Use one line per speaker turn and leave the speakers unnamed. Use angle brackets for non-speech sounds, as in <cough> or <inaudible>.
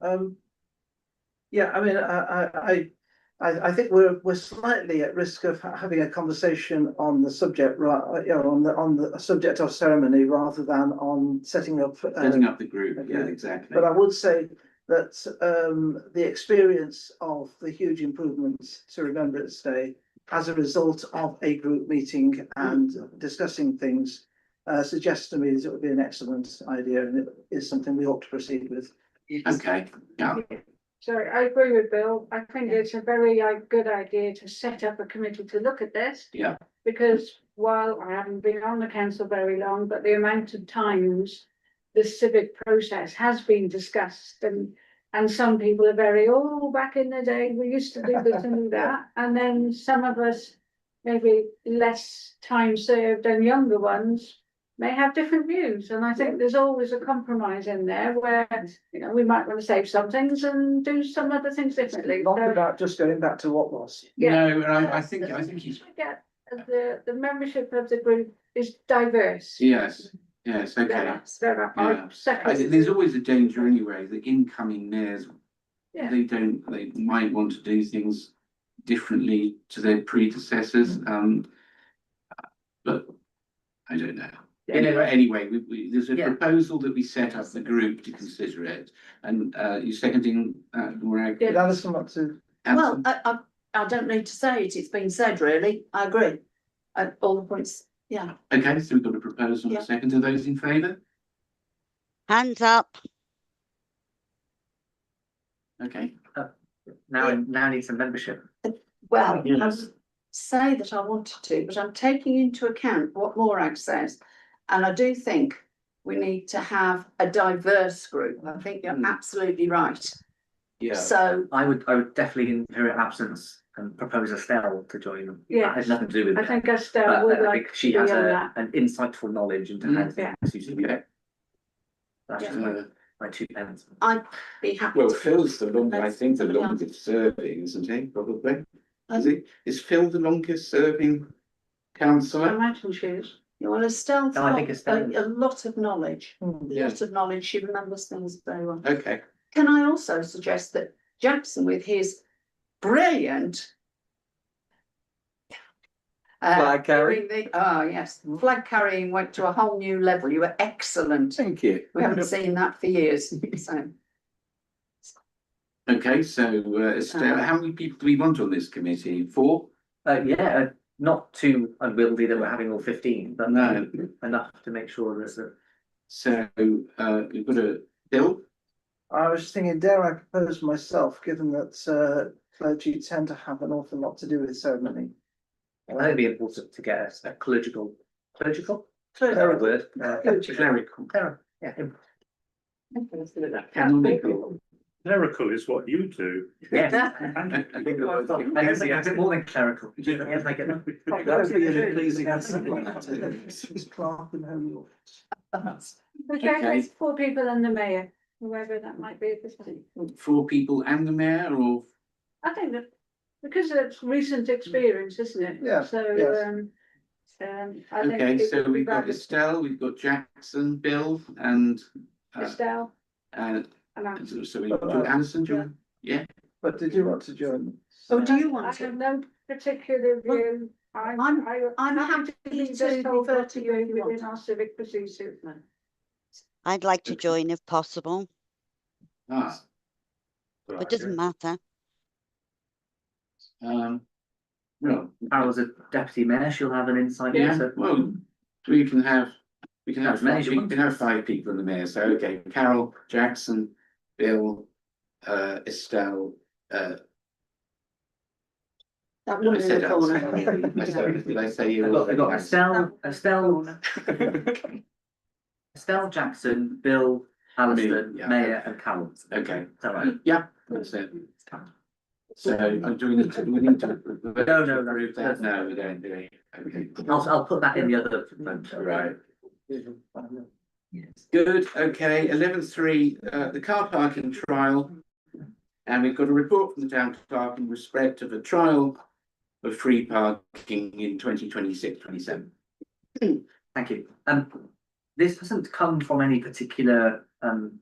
Um, yeah, I mean, I, I, I, I, I think we're, we're slightly at risk of ha- having a conversation on the subject, right, you know, on the, on the subject of ceremony rather than on setting up. uh,
setting up the group, yeah,
okay.
exactly.
But I would say that, um, the experience of the huge improvements to Remembrance Day as a result of a group meeting and discussing things, uh, suggests to me that it would be an excellent idea and it is something we ought to proceed with.
Okay, yeah,
So I agree with Bill. I think it's a very uh, good idea to set up a committee to look at this.
Yeah.
Because while I haven't been on the council very long, but the amount of times the civic process has been discussed and, and some people are very, oh, back in the day, we used to do this and do that. And then some of us, maybe less time served and younger ones may have different views, and I think there's always a compromise in there where, you know, we might want to save some things and do some other things differently.
Not
So,
about just going back to what was.
Yeah.
no, and I, I think, I think he's,
I get that the, the membership of the group is diverse.
yes, yes, okay.
There are- there
Yeah.
are
I think there's
second,
always a danger anyway, the incoming mayors,
Yeah.
they don't, they might want to do things differently to their predecessors, um. But I don't know. Anyway, anyway, we, we, there's a
Yeah.
proposal that we set up the group to consider it, and, uh, you seconding, uh, Morag?
Yeah.
Did Alison want to?
Well, I, I, I don't need to say it, it's been said really, I agree. At all the points, yeah.
Okay, so we've got a proposal, and a
Yeah.
second, are those in favour?
Hands up.
Okay,
Now, it now needs a membership.
Well, I would say that I wanted to, but I'm taking into account what Morag says. And I do think we need to have a diverse group. I think you're
Mm.
absolutely right.
yeah,
So,
I would, I would definitely in her absence and propose Estelle to join them.
Yeah.
That has nothing to do with
I
it.
think
But uh,
Estelle would
I
like,
think she
to
has
be on
a,
that.
an insightful knowledge into how
Mm.
Yeah.
things used to be.
Okay.
That's just my,
Uh,
my two pence.
I'd be happy.
Well,
to-
Phil's the longest, I
That's-
think the
yeah.
longest serving, isn't he, probably? Is
Um,
it, is Phil the longest serving councillor?
imagine she is.
Well, Estelle's
No, I think
got
Estelle-
a, a lot of knowledge,
hmm.
a
Yeah.
lot of knowledge. She remembers things very well.
Okay,
Can I also suggest that Jackson with his brilliant. Uh,
Flag carry.
doing the- oh, yes, flag carrying went to a whole new level. You were excellent.
thank you.
We haven't seen that for years, so. <laughs>
Okay, so uh, Estelle,
Um,
how many people do we want on this committee? Four?
Uh, yeah, not too unwieldy that we're having all fifteen, but
No.
enough to make sure that the.
So uh, we've got a Bill,
I was just thinking, dare I propose myself, given that uh, clergy tend to have an awful lot to do with ceremony.
I think it'd be important to get a- a clerical, clerical?
Clerical.
Word. Uh,
Clerical.
Clerical. Clerical, yeah. im-
canonical.
Clerical is what you do.
Yeah.
I
I
think
think
the word's got
a bit more than clerical.
Yeah.
Yes, I get that.
It's Clark and Holy Office.
Okay, there's four people and the mayor, whoever that might be at this point.
Four people and the mayor or?
I think that, because it's recent experience, isn't it?
Yeah,
So,
yes.
um, um, I think.
Okay,
it
so
would be
we've got
rather
Estelle, we've got Jackson, Bill and uh,
Estelle
uh,
and I.
so- so we
uh,
do Alison, do you? want-
But did you want to join?
So Oh, do you
I
want
have
to?
no particular
Well,
view. I'm,
I'm-
I, I'm
I'm
happy to
happy
be
to
just told
refer
what
to
to
you if
do
you
within
want.
our civic procedure.
I'd like to
Okay.
join if possible,
Ah,
but doesn't matter.
um, well,
Carol's a deputy mayor, she'll have an insight
yeah,
into.
well, we can have, we can have,
As many
five-
as you
we
want.
can have five people in the mayor, so okay, Carol, Jackson, Bill, uh, Estelle, uh,
That
I
woman in
said
the
that,
corner.
sorry. I
<laughs>
said- Did I say
<laughs>
you?
I've got, I've got Estelle, Estelle,
<laughs> Okay,
Estelle Jackson, Bill, Alison,
Me, yeah.
Mayor and Carol.
Okay.
Is that right?
yeah, that's it. So, uh, do we need to, do we need to?
No, no, no.
Approve that, no, we don't, do we? Okay.
I'll, I'll put that in the other. vote.
Right. Good, okay, eleven three, uh, the car parking trial. And we've got a report from the town clerk in respect of a trial of free parking in 2026-27.
Thank you. Um, this hasn't come from any particular, um,